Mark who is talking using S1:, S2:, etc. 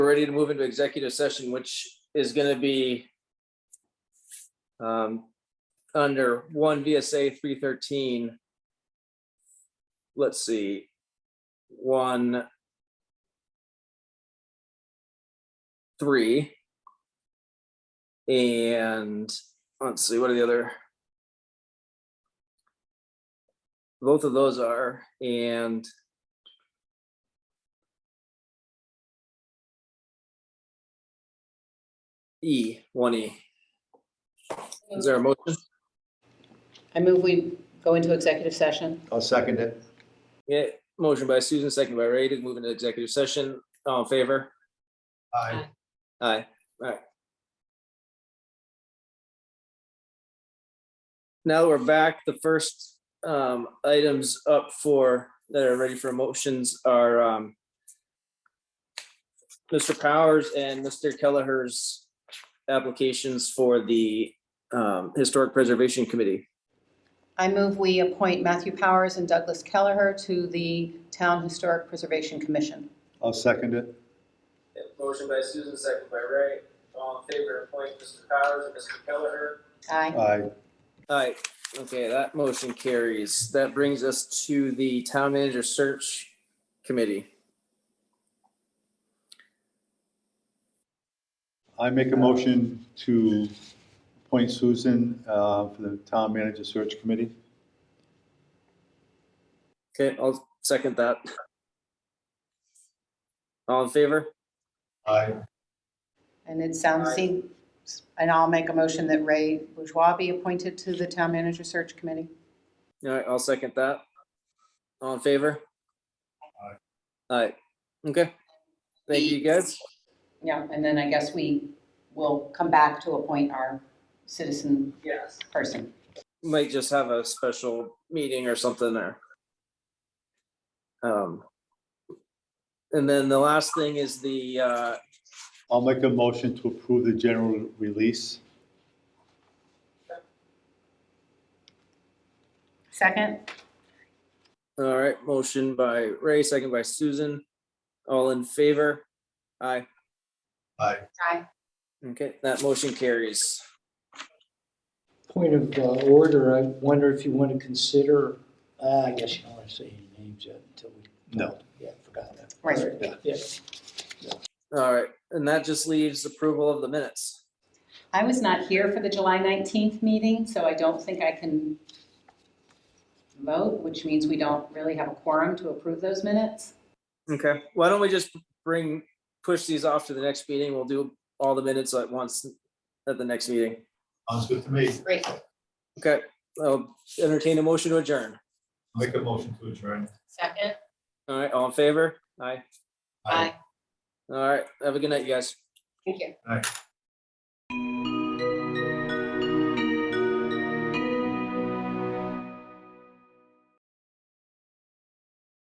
S1: We're ready to move into executive session, which is going to be um, under one VSA three thirteen. Let's see, one three. And let's see, what are the other? Both of those are, and E, one E. Is there a motion?
S2: I move we go into executive session.
S3: I'll second it.
S1: Yeah, motion by Susan, second by Ray to move into executive session. All in favor?
S3: Aye.
S1: Aye. All right. Now we're back. The first um, items up for, that are ready for motions are um, Mr. Powers and Mr. Kelleher's applications for the um, Historic Preservation Committee.
S2: I move we appoint Matthew Powers and Douglas Kelleher to the Town Historic Preservation Commission.
S3: I'll second it.
S1: Yeah, Motion by Susan, second by Ray. All in favor of appointing Mr. Powers and Mr. Kelleher?
S2: Aye.
S3: Aye.
S1: Aye. Okay, that motion carries. That brings us to the Town Manager Search Committee.
S3: I make a motion to appoint Susan uh, for the Town Manager Search Committee.
S1: Okay, I'll second that. All in favor?
S3: Aye.
S2: And it sounds,
S1: Aye.
S2: seems- and I'll make a motion that Ray Bourgeois be appointed to the Town Manager Search Committee.
S1: All right, I'll second that. All in favor? Aye. Aye. Okay. Thank you, guys.
S2: Yeah, and then I guess we will come back to appoint our citizen
S1: Yes.
S2: person.
S1: Might just have a special meeting or something there. Um. And then the last thing is the, uh,
S3: I'll make a motion to approve the general release.
S2: Second?
S1: all right, motion by Ray, second by Susan. All in favor? Aye.
S3: Aye.
S2: Aye.
S1: Okay, that motion carries.
S4: Point of uh, order, I wonder if you want to consider, uh, I guess you don't want to say any names yet until we.
S3: No.
S4: Yeah, forgot that.
S2: Right.
S4: Yeah.
S1: All right, and that just leaves approval of the minutes.
S2: I was not here for the July 19th meeting, so I don't think I can vote, which means we don't really have a quorum to approve those minutes.
S1: Okay, why don't we just bring, push these off to the next meeting? We'll do all the minutes at once at the next meeting.
S3: Sounds good to me.
S2: Great.
S1: Okay, I'll entertain a motion to adjourn.
S3: Make a motion to adjourn.
S2: Second.
S1: All right, all in favor? Aye.
S2: Aye.
S1: All right, have a good night, you guys.
S2: Thank you.